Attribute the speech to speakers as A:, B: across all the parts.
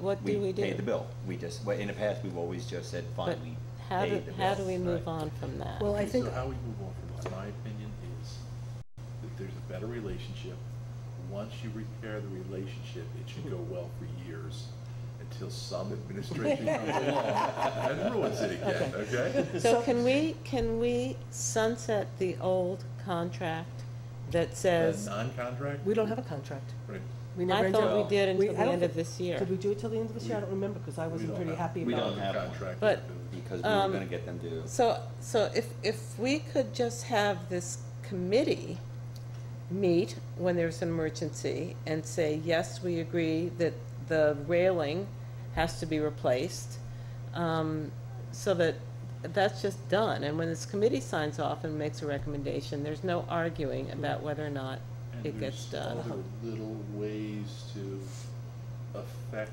A: what do we do?
B: Pay the bill. We just, well, in the past, we've always just said,
A: But
B: fine, we
A: how
B: pay
A: do,
B: the bill.
A: how do we move
B: right?
A: on from that?
C: Well, I
D: Okay,
C: think-
D: So how we move on from this, my opinion is that there's a better relationship. Once you repair the relationship, it should go well for years until some administration comes along and ruins it again, okay?
A: So can we, can we sunset the old contract that
D: A
A: says,
D: non-contract?
C: We don't have a contract.
D: Right.
C: We never
A: I
C: entered.
A: thought we did until
C: We- I
A: the
C: don't
A: end of
C: think-
A: this year?
C: Did we do it till the end of this year? I don't remember, because I
D: We
C: wasn't
D: don't
C: pretty
D: have-
C: happy
B: we
C: about
B: don't
C: it.
B: have one.
D: Contract.
A: But-
B: Because we
A: Um,
B: were gonna get them to.
A: So, so if, if we could just have this committee meet when there's an emergency and say, yes, we agree that the railing has to be replaced, um, so that, that's just done. And when this committee signs off and makes a recommendation, there's no arguing about whether or not
D: And
A: it gets
D: there's
A: done.
D: other little ways to affect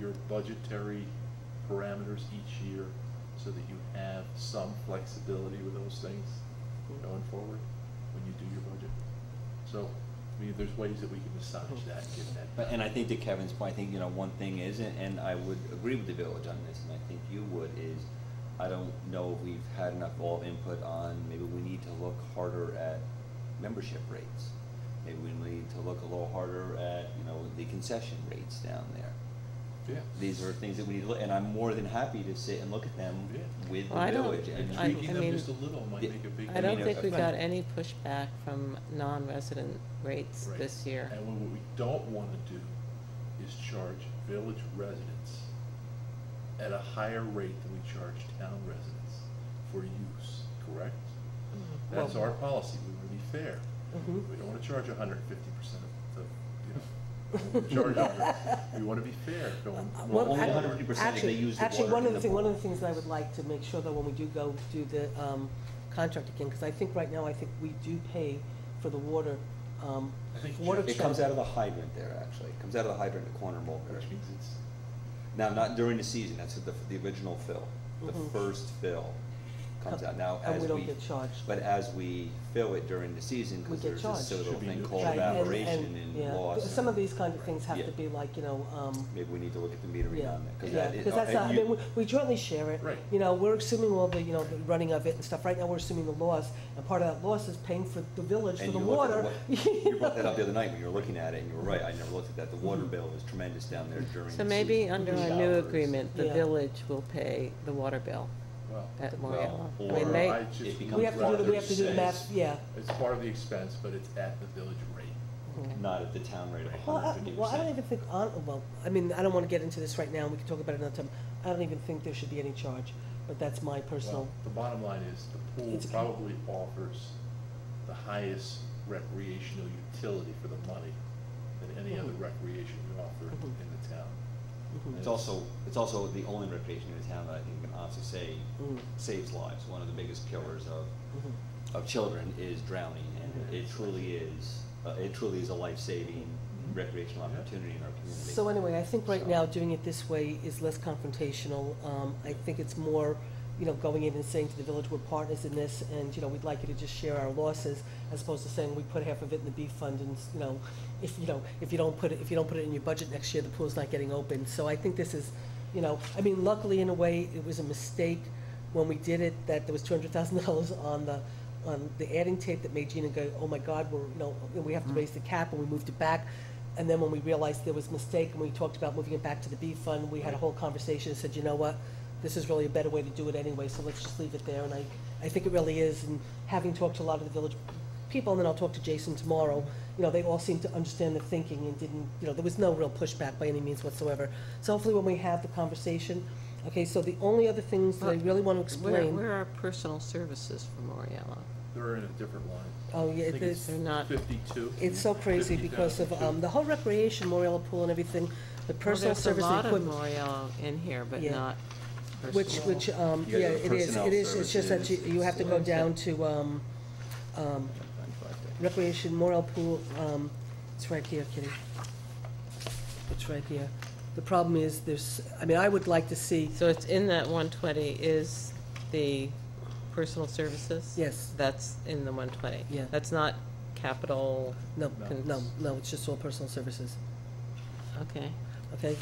D: your budgetary parameters each year so that you have some flexibility with those things
A: Mm-hmm.
D: going forward when you do your budget. So, I mean, there's ways that we can massage that, and get that.
B: But, and I think to Kevin's point, I think, you know, one thing is, and- and I would agree with the village on this, and I think you would, is I don't know if we've had enough all input on, maybe we need to look harder at membership rates. Maybe we need to look a little harder at, you know, the concession rates down there.
D: Yeah.
B: These are things that we need to look, and I'm more than happy to sit and look at them
D: Yeah.
B: with
A: Well, I
B: the
A: don't-
B: village and.
D: And
A: I-
D: tweaking
A: I
D: them
A: mean,
D: just a little might
B: yeah,
D: make a big.
A: I don't
B: mean,
A: think
B: I
A: we
B: think-
A: got any pushback from non-resident rates
D: Right.
A: this year.
D: And what we don't wanna do is charge village residents at a higher rate than we charge town residents for use, correct? That's
C: Mm-hmm. Well-
D: our policy, we wanna be fair.
C: Mhm.
D: We don't wanna charge hundred and fifty percent of, the, you know, we don't wanna charge 100. we wanna be fair going.
C: Uh,
B: Well,
C: well,
B: only
C: act-
B: 100% if
C: actually-
B: they use the
C: Actually,
B: water
C: one
B: in
C: of the
B: the
C: thing, one of
B: pool.
C: the things that I would like to make sure that when we do go do the, um, contract again, because I think right now, I think we do pay for the water, um,
D: I think
C: water
D: Jeff-
B: It comes out of the hydrant there, actually. It comes out of the hydrant in the corner of Mulberry.
D: Which means it's,
B: Now, not during the season, that's the, the original fill. The
C: Mhm.
B: first fill comes out now
C: And
B: as
C: we
B: we.
C: don't get charged.
B: But as we fill it during the season,
C: We
B: because
C: get
B: there's this
C: charged.
B: little
D: Should be
B: thing
D: no
B: called
D: charge.
C: Right, and-
B: evaporation
C: and-
B: and
C: yeah.
B: loss.
C: Some of these kind of things have
B: Yeah.
C: to be like, you know, um,
B: Maybe we need to look at the metering
C: Yeah,
B: on that, because
C: yeah,
B: that is.
C: because that's,
B: and
C: not- I
B: you-
C: mean, we- we jointly share it.
D: Right.
C: You know, we're assuming all the, you know, the running of it and stuff. Right now, we're assuming the loss, and part of that loss is paying for the village for
B: and
C: the
B: you look at
C: water.
B: wa- You brought that
C: know?
B: up the other night when you were looking at it, and you were right, I never looked at that. The
C: Mm-hmm.
B: water bill is tremendous down there during the
A: So maybe
B: season.
A: under
B: The
A: our new
B: showers.
A: agreement, the
C: Yeah.
A: village will pay the water bill
D: well.
A: at Moriallo.
B: Well,
A: I mean,
B: or
A: they,
D: I just
B: it
D: would
B: becomes
C: We have to do, the-
D: rather
C: we have to do the
D: say
C: math, yeah.
D: It's part of the expense, but it's at the village rate.
B: Not at the town rate of
C: Well,
B: hundred
C: I,
B: fifty percent.
C: well, I don't even think, on. well, I mean, I don't want to get into this right now, and we can talk about it another time. I don't even think there should be any charge, but that's my personal,
D: Well, The bottom line is, the pool
C: It's a-
D: probably offers the highest recreational utility for the money than any other
C: Mhm.
D: recreation we offer
C: Mhm.
D: in the town.
C: Mhm.
B: It's also, it's also the only recreation in town that I think can honestly say
C: Mm.
B: saves lives. One of the biggest killers of,
C: mm-hmm.
B: of children is drowning, and it truly is, uh, it truly is a life-saving recreational opportunity in our community.
C: So anyway, I think right
B: So-
C: now, doing it this way is less confrontational. Um, I think it's more, you know, going in and saying to the village, we're partners in this, and, you know, we'd like you to just share our losses, as opposed to saying, we put half of it in the beef fund, and, you know, if, you know, if you don't put it, if you don't put it in your budget next year, the pool's not getting open. So I think this is, you know, I mean, luckily, in a way, it was a mistake when we did it, that there was two hundred thousand dollars on the, on the adding tape that made Gina go, oh my God, we're, you know, we have to raise the cap, and we moved it back. And then when we realized there was a mistake and we talked about moving it back to the B fund, we had a whole conversation and said, you know what? This is really a better way to do it anyway, so let's just leave it there. And I, I think it really is. And having talked to a lot of the village people, and then I'll talk to Jason tomorrow, you know, they all seemed to understand the thinking and didn't, you know, there was no real pushback by any means whatsoever. So hopefully when we have the conversation, okay, so the only other things that I really want to
A: where,
C: explain.
A: where are personal services for Moriallo?
D: They're in a different line.
C: Oh, yeah,
D: I think
C: it's-
A: They're not,
D: Fifty-two.
C: It's so crazy because of,
D: 50,000.
C: um, the whole recreation, Moriallo Pool and everything, the
A: well,
C: personal
A: Oh, there's a
C: service and
A: lot of
C: equipment.
A: Moriallo in here, but
C: Yeah.
A: not
C: Which,
A: personal.
C: which, um,
B: You
C: yeah,
B: guys have
C: it is,
B: personnel
C: it is, it's just that you,
B: services,
C: you have to go
B: it's-
C: down to, um, um, recreation, Morel Pool, um, it's right here, Kitty. It's right here. The problem is, there's, I mean, I would like to see,
A: So it's in that one twenty is the personal services?
C: Yes.
A: That's in the one twenty?
C: Yeah.
A: That's not capital,
C: no,
D: No.
C: no, no, it's just all personal services,
A: okay.
C: okay?